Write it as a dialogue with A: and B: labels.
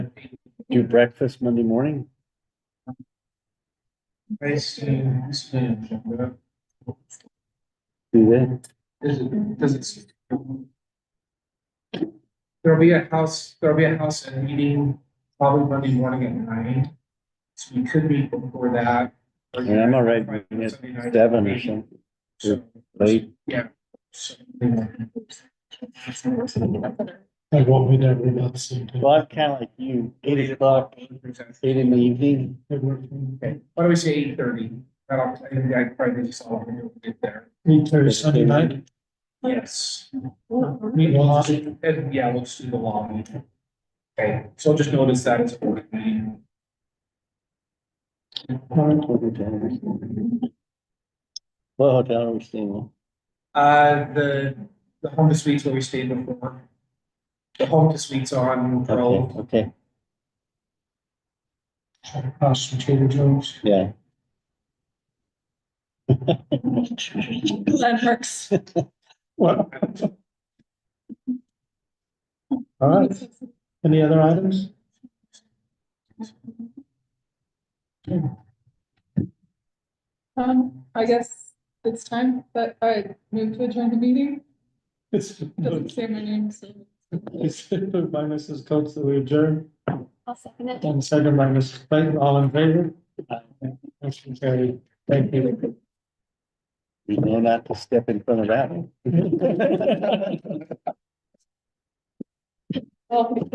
A: do breakfast Monday morning?
B: Is it,
A: Do that?
B: does it? There'll be a house, there'll be a house and meeting probably Monday morning at nine. So we could meet before that. or-
A: Yeah, I'm all right meeting at
B: Sunday night.
A: Seven or something,
B: So-
A: late.
B: Yeah. So-
C: I won't be there, but not soon.
A: Well, I'm kind of like you, eight o'clock, eight in the evening.
B: Okay, why don't we say eight thirty? That'll, I think I probably just all will get there.
C: Meet there Sunday night.
B: Yes.
C: Meet law.
B: And yeah, we'll just do the lobby. Okay, so just notice that as a board meeting.
A: What hotel are we staying at? What hotel are we staying
B: Uh, the, the home to suites where we stayed before. The home to suites on
A: at?
B: Grove.
A: Okay, okay,
C: Across from Trader Joe's.
A: yeah.
D: Landmarks.
C: What? All right, any other items?
D: Um, I guess it's time that I move to adjourn the meeting.
C: It's,
D: Doesn't say my name, so.
C: it's moved by Mrs. Coates that we adjourn,
E: I'll second it.
C: and second by Mrs. Clayton, all in favor? Motion carried, thank you.
A: You know not to step in front of that one.
D: Well,